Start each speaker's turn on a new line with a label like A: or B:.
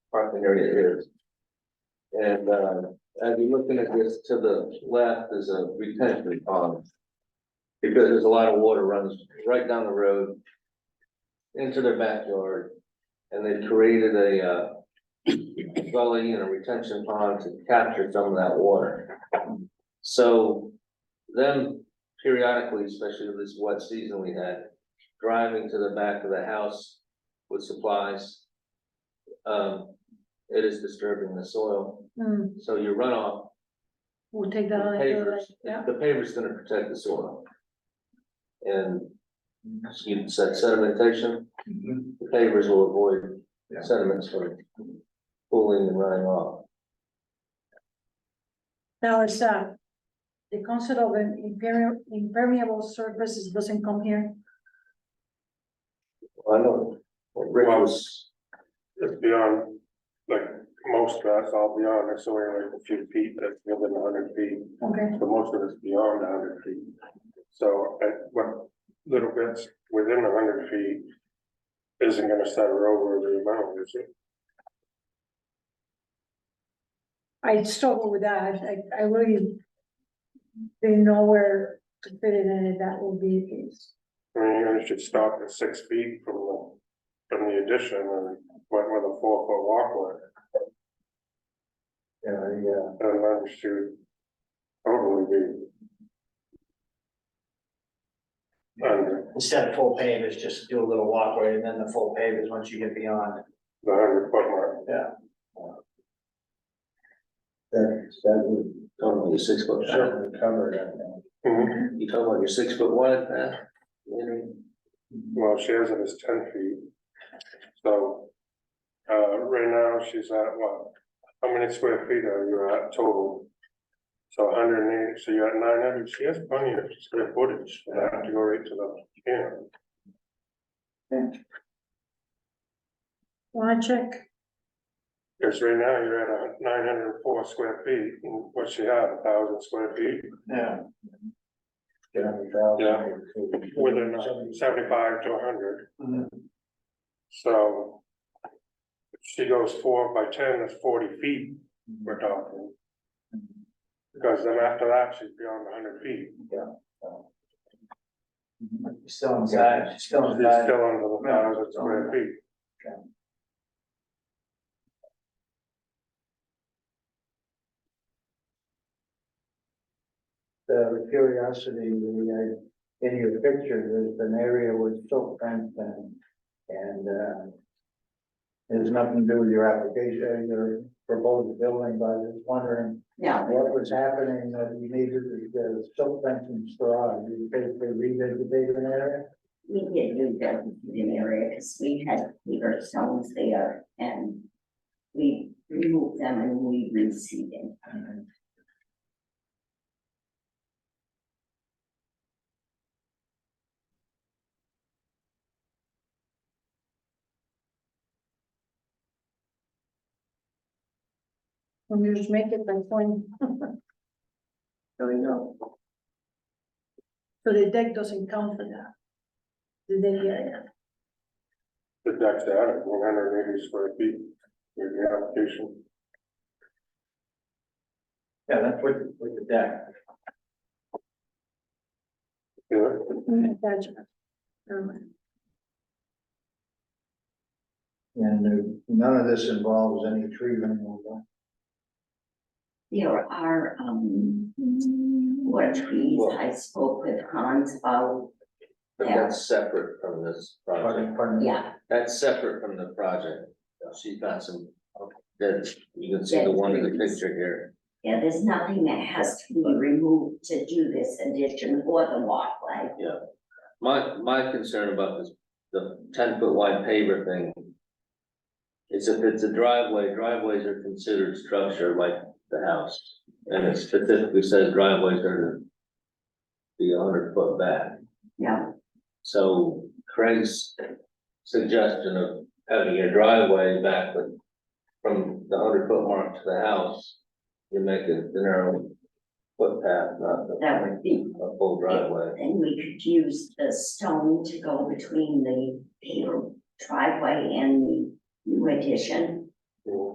A: parking area is. And, uh, as you're looking at this, to the left is a retention pond. Because there's a lot of water runs right down the road. Into their backyard, and they created a, uh. Gully and a retention pond to capture some of that water. So, them periodically, especially this wet season we had, driving to the back of the house with supplies. Um, it is disturbing the soil,
B: Hmm,
A: so your runoff,
B: we'll take
A: the
B: that on. and do
A: pavers,
B: that, Yeah,
A: the paver's gonna protect the soil. And you said sedimentation, the pavers will avoid
C: Yeah.
A: sediments from pooling and running off.
B: now it's, uh, the concept of an impermeable, impermeable surfaces doesn't come here.
A: I know, what Rick was,
D: It's beyond, like, most of us, I'll be honest, so we're like a few feet, that's within a hundred feet,
B: Okay,
D: but most of it's beyond a hundred feet. So, at what little bits within a hundred feet isn't gonna settle over the amount, is it?
B: I struggle with that, I, I really didn't know where to fit it in, if that would be the case.
D: I mean, you guys should stop at six feet from the, from the addition and went with a four foot walkway
C: Yeah, yeah,
D: and then should totally be. Under
E: Instead of full pavers, just do a little walkway and then the full pavers, once you get beyond it.
D: the hundred foot mark.
C: that, that would,
A: talking about your six foot,
C: that would cover that now.
D: Mhm.
A: you talking about your six foot wide, uh, you know,
D: Well, she has it as ten feet. So, uh, right now she's at what? How many square feet are you at total? So hundred and eighty, so you're at nine hundred. She has plenty of square footage. I have to go right to the, yeah.
B: Wanna check?
D: Because right now you're at a nine hundred and four square feet, and what she had, a thousand square feet,
E: Yeah.
C: Get on the valve.
D: Yeah. within seventy-five to hundred,
E: Mm-hmm.
D: so. if She goes four by ten, that's forty feet we're talking. Because then after that, she's beyond hundred feet,
E: She's Still inside, she's still
D: she's
E: inside.
C: uh,
D: still under the
E: Yeah.
D: thousand square feet.
C: The curiosity, the, uh, in your picture, there's an area with silk fence and, and, uh, there's nothing to do with your application, uh, your proposed building, but I was just wondering
F: No,
C: what was happening that you needed the- the silk fence and straw, you basically revegetated an area?
F: we did do the heating area because we had clear stones there and we removed them and we reseeded.
B: When you just make it by point. So you know. So the deck doesn't count for that. The deck area,
D: The deck's out at one hundred and eighty square feet, with the application,
E: Yeah, that's with, with the deck.
D: yeah,
B: attachment. Never mind.
C: And there- none of this involves any tree removal.
F: There are, um, what trees I spoke with Hans about,
A: but
F: Yeah.
A: that's separate from this project.
C: Pardon, pardon me.
F: yeah,
A: That's separate from the project. She's got some, that, you can see the one in the picture here.
F: yeah, there's nothing that has to be removed to do this addition or the walkway.
A: My, my concern about this, the ten foot wide paver thing. Is if it's a driveway, driveways are considered structure like the house, and it specifically says driveways are. to Be hundred foot back,
F: No,
A: so Craig's suggestion of having your driveway back with. From the hundred foot mark to the house, you make it the narrow footpath, not the
F: that would be,
A: a full driveway.
F: then we could use the stone to go between the paved driveway and the new addition.
A: you know.